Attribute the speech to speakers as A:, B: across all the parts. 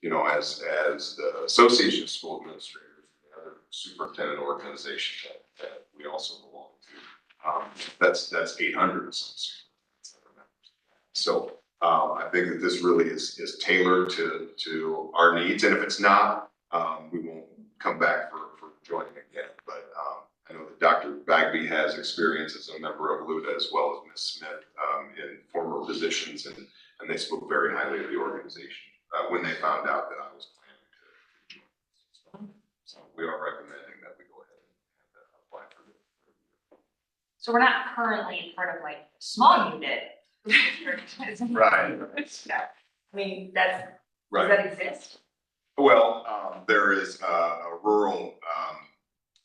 A: you know, as, as the Association of School Administrators, the other superintendent organization that, that we also belong to. Um, that's, that's eight hundred or something. So, um, I think that this really is, is tailored to, to our needs, and if it's not, um, we won't come back for, for joining again. But, um, I know that Dr. Bagby has experience as a member of LUDA as well as Ms. Smith, um, in former positions and and they spoke very highly of the organization uh, when they found out that I was planning to join. So we are recommending that we go ahead and uh, apply for it.
B: So we're not currently part of like a small unit.
A: Right.
B: No, I mean, that's, does
A: Right.
B: that exist?
A: Well, um, there is uh, a rural, um,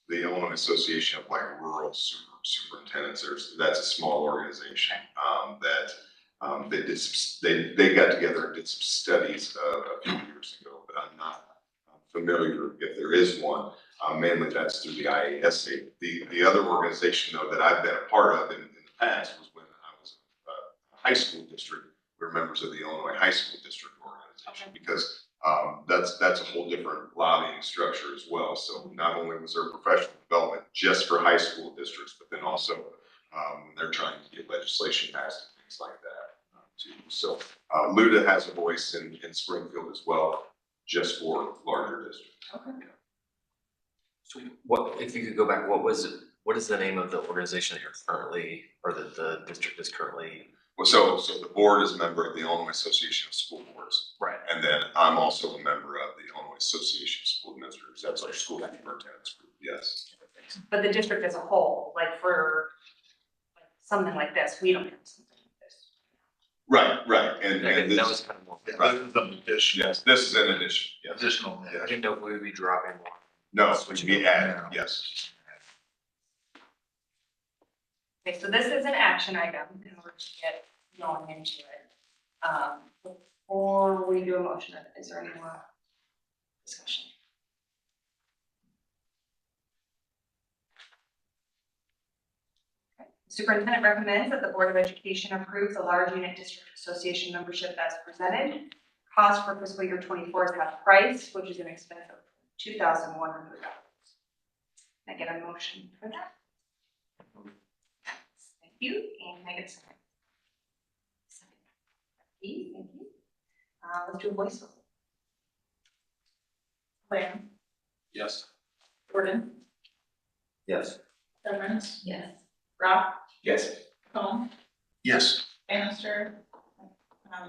A: the Illinois Association of like Rural Super- Superintendents, there's, that's a small organization um, that um, they did, some- they, they got together and did some studies uh, a few years ago, but I'm not familiar if there is one. Uh, Mainly that's through the IASA. The, the other organization though that I've been a part of in, in the past was when I was uh, a high school district. We We're members of the Illinois High School District Organization because um, that's, that's a whole different lobbying structure as well. So not only was there professional development just for high school districts, but then also um, when they're trying to get legislation passed and things like that uh, too. So, uh, Luda has a voice in, in Springfield as well, just for larger districts.
C: So what, if you could go back, what was, what is the name of the organization that you're currently, or that the district is currently?
A: Well, so, so the board is a member of the Illinois Association of School Boards.
C: Right.
A: And then I'm also a member of the Illinois Association of School Administrators. That's our school superintendent's group, yes.
B: But the district as a whole, like for like, something like this, we don't have something like this.
A: Right, right. And,
C: That
A: and
C: that was
A: this,
C: kind of more,
D: Yeah, this is an addition,
A: yes, this is an addition, yes.
D: additional.
C: I didn't know if we would be dropping one.
A: No,
C: Switch it
A: we
C: up.
A: add, yes.
B: Okay, so this is an action item in order to get going into it. Um, before we do a motion, is there any more discussion? Okay. Superintendent recommends that the Board of Education approves the large unit district association membership as presented. Cost for fiscal year twenty-four is half price, which is an expense of two thousand one hundred dollars. Can I get a motion for that? Thank you, and can I get a second? Second. Becky, thank you. Uh, let's do a voice vote.
E: Lamb,
D: Yes.
E: Gordon,
C: Yes.
E: Severance,
B: Yes.
E: Rock,
D: Yes.
E: Cone,
D: Yes.
E: Bannister, um,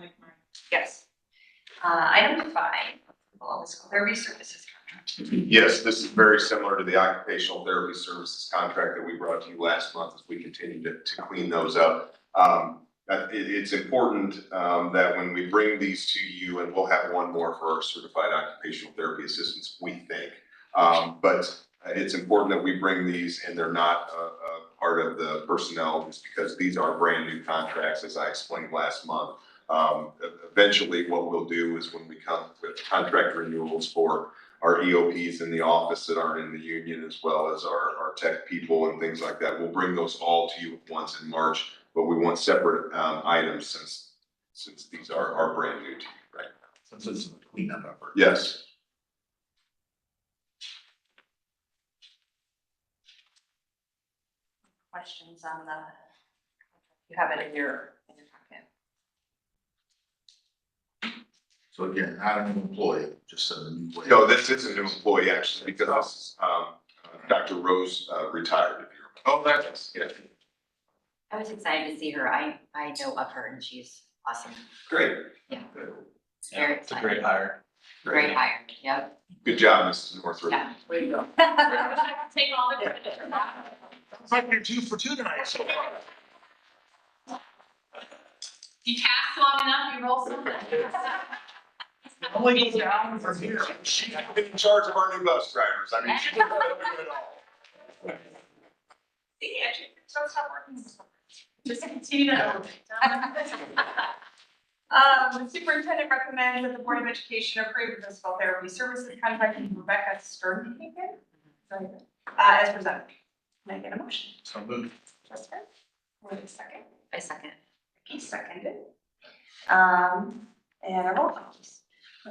E: McMurray.
B: Yes. Uh, item five, well, the school therapy services contract.
A: Yes, this is very similar to the occupational therapy services contract that we brought to you last month as we continue to, to clean those up. Um, that- it- it's important, um, that when we bring these to you, and we'll have one more for our certified occupational therapy assistants, we think. Um, but it's important that we bring these and they're not, uh, uh, part of the personnel just because these are brand new contracts, as I explained last month. Um, e- eventually, what we'll do is when we come with contract renewals for our EOPs in the office that aren't in the union, as well as our, our tech people and things like that. We'll bring those all to you at once in March, but we want separate, um, items since, since these are, are brand new to you, right?
D: Since it's a cleanup effort.
A: Yes,
B: Questions on the, you have it in your, in your packet.
D: So again, not an employee, just a new way.
A: no, this is a new employee actually, because this is, um, uh, Dr. Rose, uh, retired. if you remember. Oh, that's, yeah,
F: I was excited to see her. I, I know of her and she's awesome.
A: great.
F: Very
C: It's a great
F: excited.
C: hire.
F: Great hire. Yep,
A: Good job, Mrs. Northrup.
F: yeah.
B: Way to go.
E: Take all the credit for that.
D: It's like you're two for two tonight so far.
E: You cast long enough, you roll something.
D: Only goes down from here.
A: She's been in charge of our new bus drivers. I mean, she did it all.
B: The action, so stop working.
E: Just continue to elevate.
B: Um, the superintendent recommends that the Board of Education approve the physical therapy services contract with Rebecca Stern. Uh, as presented. Can I get a motion?
D: So move.
B: Jessica? Wait a second.
F: I second.
B: Becky seconded. Um, and a roll call, please.